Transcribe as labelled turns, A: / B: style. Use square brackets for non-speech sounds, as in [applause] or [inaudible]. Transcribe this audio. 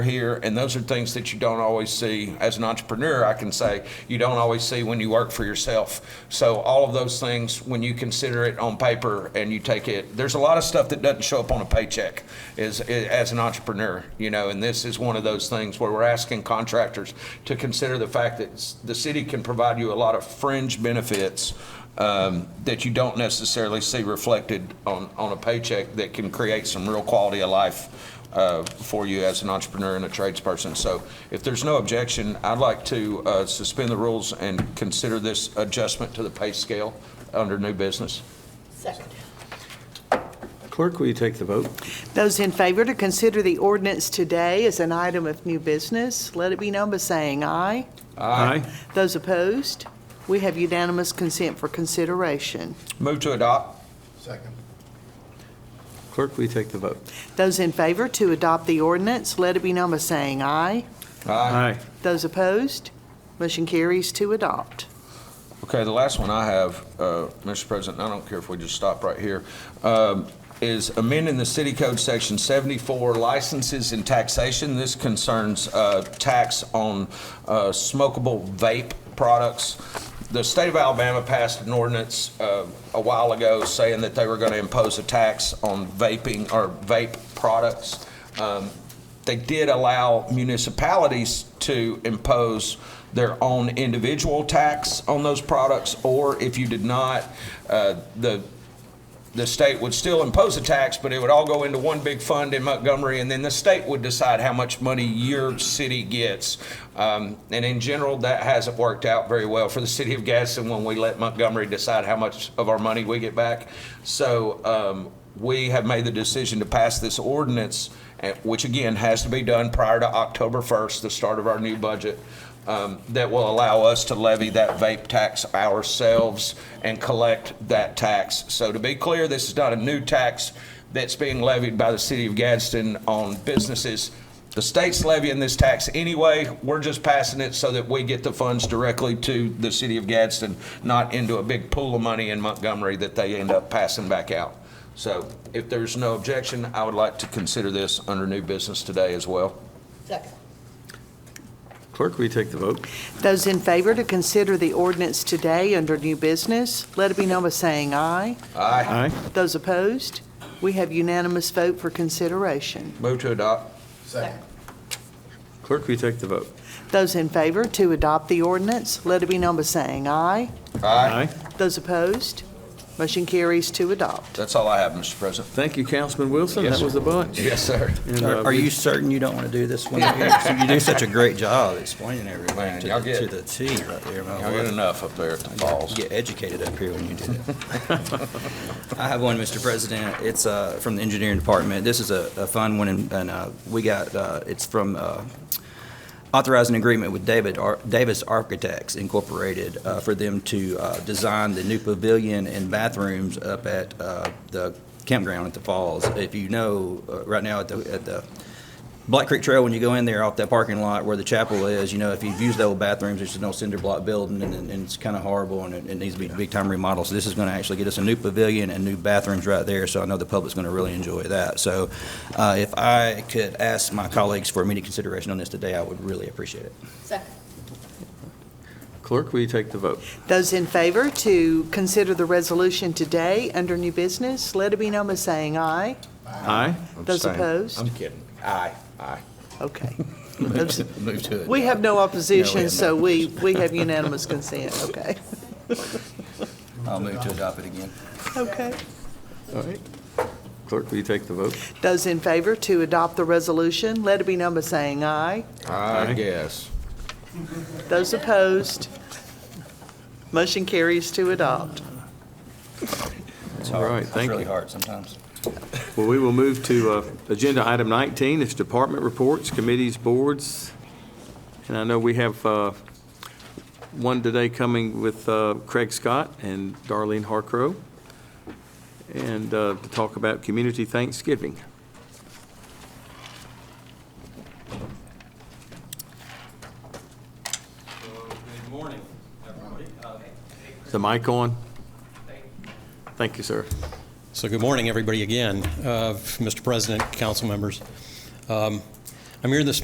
A: here, and those are things that you don't always see. As an entrepreneur, I can say, you don't always see when you work for yourself. So all of those things, when you consider it on paper and you take it, there's a lot of stuff that doesn't show up on a paycheck as, as an entrepreneur, you know, and this is one of those things where we're asking contractors to consider the fact that s- the city can provide you a lot of fringe benefits um, that you don't necessarily see reflected on, on a paycheck that can create some real quality of life uh, for you as an entrepreneur and a tradesperson. So if there's no objection, I'd like to uh, suspend the rules and consider this adjustment to the pay scale under new business.
B: Second.
C: Clerk, will you take the vote?
D: Those in favor to consider the ordinance today as an item of new business, let it be known by saying aye.
C: Aye.
D: Those opposed, we have unanimous consent for consideration.
A: Move to adopt.
E: Second.
C: Clerk, will you take the vote?
D: Those in favor to adopt the ordinance, let it be known by saying aye. Those opposed, motion carries to adopt.
A: Okay, the last one I have, uh, Mr. President, I don't care if we just stop right here, um, is amending the city code section 74 licenses and taxation. This concerns uh, tax on uh, smokable vape products. The state of Alabama passed an ordinance uh, a while ago saying that they were going to impose a tax on vaping or vape products. Um, they did allow municipalities to impose their own individual tax on those products, or if you did not, uh, the, the state would still impose a tax, but it would all go into one big fund in Montgomery, and then the state would decide how much money your city gets. Um, and in general, that hasn't worked out very well for the city of Gadsden when we let Montgomery decide how much of our money we get back. So, um, we have made the decision to pass this ordinance, eh, which again has to be done prior to October 1st, the start of our new budget, um, that will allow us to levy that vape tax ourselves and collect that tax. So to be clear, this is not a new tax that's being levied by the city of Gadsden on businesses. The state's levying this tax anyway. We're just passing it so that we get the funds directly to the city of Gadsden, not into a big pool of money in Montgomery that they end up passing back out. So if there's no objection, I would like to consider this under new business today as well.
B: Second.
C: Clerk, will you take the vote?
D: Those in favor to consider the ordinance today under new business, let it be known by saying aye.
A: Aye.
D: Those opposed, we have unanimous vote for consideration.
A: Move to adopt.
E: Second.
C: Clerk, will you take the vote?
D: Those in favor to adopt the ordinance, let it be known by saying aye. Those opposed, motion carries to adopt.
A: That's all I have, Mr. President.
C: Thank you, Councilman Wilson.
A: Yes,
C: That was the bunch.
A: Yes, sir.
C: And, uh,
F: Are are
C: we-
F: you certain you don't want to do this one here? 'Cause You do such a great job explaining
A: Man,
F: everything to
A: y'all
F: the-
A: get-
F: to the T right there. my
A: Y'all
F: word.
A: get enough up there at the falls.
F: Get educated up here when you do that. [laughs] I have one, Mr. President. It's uh, from the engineering department. This is a a fun one, and- and uh, we got, uh, it's from uh, authorizing agreement with David Ar- Davis Architects Incorporated uh, for them to uh, design the new pavilion and bathrooms up at uh, the campground at the falls. If you know, uh, right now at the at the Black Creek Trail, when you go in there off that parking lot where the chapel is, you know, if you've used the old bathrooms, it's an old cinder block building and, and it's kind of horrible and it, it needs to be big time remodeled. So this is going to actually get us a new pavilion and new bathrooms right there. So I know the public's going to really enjoy that. So uh, if I could ask my colleagues for immediate consideration on this today, I would really appreciate it.
B: Second.
C: Clerk, will you take the vote?
D: Those in favor to consider the resolution today under new business, let it be known by saying aye.
C: Aye.
D: Those
A: Abstain.
D: opposed?
A: I'm kidding. Aye, aye.
D: Okay.
F: Move to it.
D: We have no
F: No, we
D: opposition,
F: have
D: so we, we have unanimous consent, okay?
F: I'll move to adopt it again.
D: Okay.
C: All right. Clerk, will you take the vote?
D: Those in favor to adopt the resolution, let it be known by saying aye.
A: I
C: Aye.
A: guess.
D: Those opposed, motion carries to adopt.
F: It's
C: All
F: hard.
C: right,
F: It's
C: thank
F: really
C: you.
F: hard sometimes.
C: Well, we will move to uh, Agenda Item 19, it's department reports, committees, boards. And I know we have uh, one today coming with uh, Craig Scott and Darlene Harcrow, and uh, to talk about Community Thanksgiving.
G: Good morning, everybody. Uh,
C: Is the mic on? Thank you, sir.
G: So good morning, everybody, again, uh, Mr. President, council members. Um, I'm here this